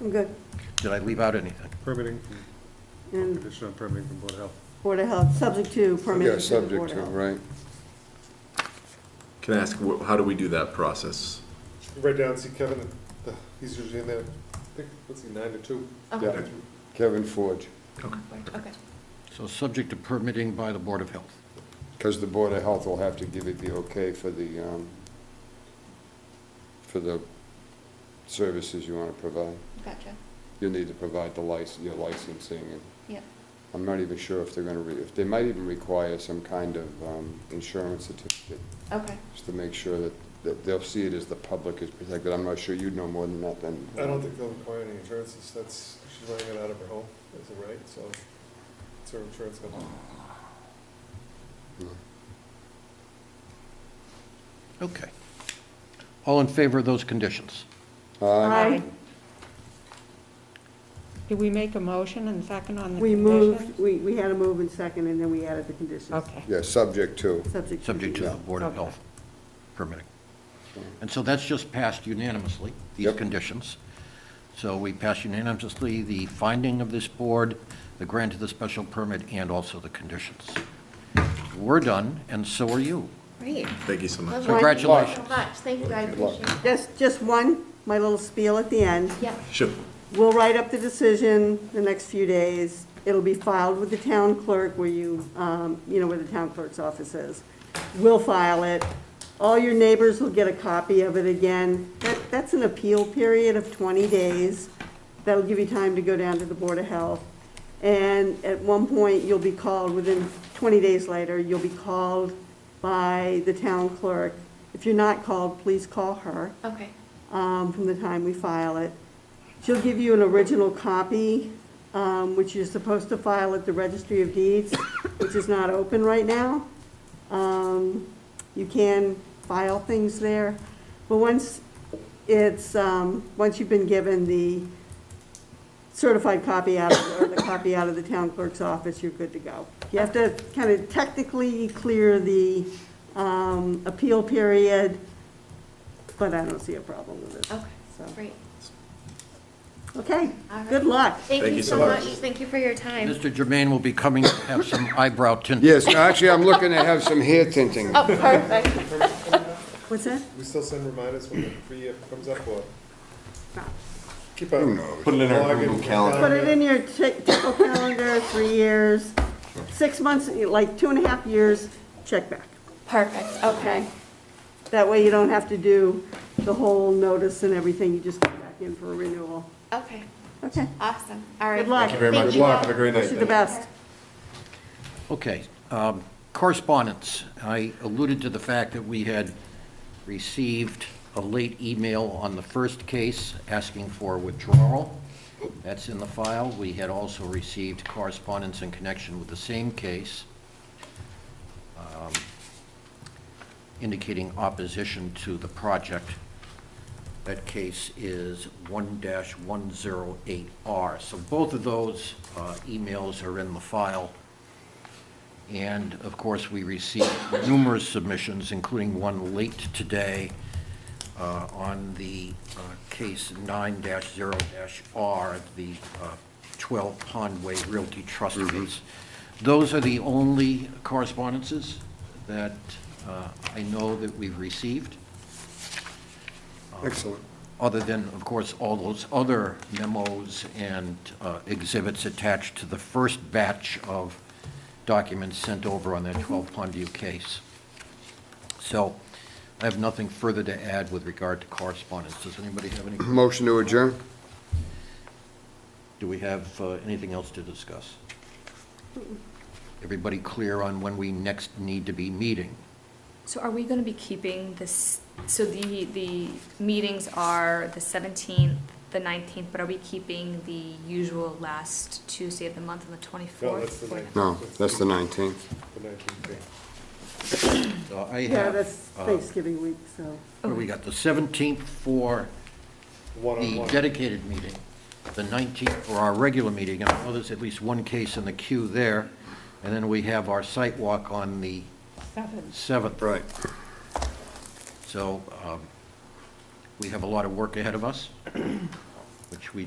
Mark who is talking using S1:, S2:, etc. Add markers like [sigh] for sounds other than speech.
S1: I'm good.
S2: Did I leave out anything?
S3: Permitting,
S1: And
S3: conditional permitting from Board of Health.
S1: Board of Health, subject to
S4: Yeah,
S1: permission to the
S4: subject
S1: Board of
S4: to,
S1: Health.
S4: right.
S5: Can I ask, wh- how do we do that process?
S3: Right down, see Kevin, uh, he's usually in there, I think, what's he, nine to two?
S4: Yeah.
S5: Okay.
S4: Kevin Forge,
S6: Okay.
S2: So subject to permitting by the Board of Health.
S4: because the Board of Health will have to give it the okay for the, um, for the services you want to provide.
S6: Gotcha.
S4: You'll need to provide the license, your licensing, and
S6: Yep.
S4: I'm not even sure if they're going to, if they might even require some kind of um, insurance certificate,
S6: Okay.
S4: just to make sure that, that they'll see it as the public is protected. I'm not sure, you'd know more than that then.
S3: I don't think they'll require any insurances, that's, she's running it out of her home, is it right? So it's her insurance company.
S5: Oh.
S2: Okay. All in favor of those conditions?
S4: Aye.
S1: Aye.
S7: Did we make a motion and second on the
S1: We
S7: condition?
S1: moved, we, we had a move and second, and then we added the conditions.
S7: Okay.
S4: Yeah, subject to.
S1: Subject to.
S2: Subject to the
S4: Yeah.
S2: Board of
S7: Okay.
S2: Health permitting. And so that's just passed unanimously, these
S4: Yep.
S2: conditions. So we pass unanimously the finding of this board, the grant of the special permit, and also the conditions. We're done, and so are you.
S6: Great.
S5: Thank you so much.
S6: Lovely.
S2: Congratulations.
S6: Thank you so much. Thank you. I
S4: Good luck.
S6: appreciate it.
S1: Just, just one, my little spiel at the end.
S6: Yeah.
S5: Sure.
S1: We'll write up the decision the next few days. It'll be filed with the town clerk where you, um, you know, where the town clerk's office is. We'll file it. All your neighbors will get a copy of it again. That, that's an appeal period of 20 days. That'll give you time to go down to the Board of Health. And at one point, you'll be called, within 20 days later, you'll be called by the town clerk. If you're not called, please call her
S6: Okay.
S1: um, from the time we file it. She'll give you an original copy, um, which you're supposed to file at the Registry of Deeds, which is not open right now. Um, You can file things there, but once it's, um, once you've been given the certified copy out, of- or the copy out of the town clerk's office, you're good to go. You have to kind of technically clear the um, appeal period, but I don't see a problem with it.
S6: Okay.
S1: So,
S6: Great.
S1: Okay,
S6: All right.
S1: good luck.
S6: Thank you so much. Thank you for your time.
S2: Mr. Germain will be coming to have some eyebrow tinting.
S4: Yes, no, actually, I'm looking to have some hair tinting.
S6: Oh, perfect.
S1: What's that?
S3: We still send reminders when the free app comes up, or?
S1: No.
S3: Keep up.
S5: Put it in our
S3: Log
S5: Google calendar.
S1: Put it in your ti- typical calendar, three years, six months, like two and a half years, check back.
S6: Perfect. Okay.
S1: That way you don't have to do the whole notice and everything, you just go back in for a renewal.
S6: Okay.
S1: Okay,
S6: Awesome. All right.
S1: Good luck. Thank you very
S6: Thank
S5: Good
S6: you
S5: luck.
S6: all.
S5: Have a great night.
S1: wish you the best.
S2: Okay, um, correspondence. I alluded to the fact that we had received a late email on the first case asking for withdrawal. That's in the file. We had also received correspondence in connection with the same case um, indicating opposition to the project. That case is 1-108R. So both of those uh, emails are in the file. And of course, we received numerous submissions, including one late today uh, on the uh, case 9-0-R, the uh, 12 Pondway Realty Trust case. Those are the only correspondences that uh, I know that we've received,
S4: Excellent. [clears throat]
S2: other than, of course, all those other memos and uh, exhibits attached to the first batch of documents sent over on that
S1: Mm-hmm.
S2: 12 Pondview case. So I have nothing further to add with regard to correspondence. Does anybody have any,
S4: Motion to adjourn?
S2: do we have uh, anything else to discuss? Everybody clear on when we next need to be meeting?
S8: So are we gonna be keeping this, so the, the meetings are the seventeenth, the nineteenth, but are we keeping the usual last Tuesday of the month on the
S3: No, that's
S8: twenty-fourth?
S3: the ninth.
S4: No, that's the 19th.
S3: The nineteenth day.
S2: So I
S1: Yeah,
S2: have,
S1: that's
S2: uh,
S1: Thanksgiving week, so.
S2: what do we got the 17th for the
S3: One-on-one.
S2: dedicated meeting, the 19th for our regular meeting, and I know there's at least one case in the queue there, and then we have our site walk on the
S7: Seven.
S2: 7th.
S4: Right.
S2: So um, we have a lot of work ahead of us.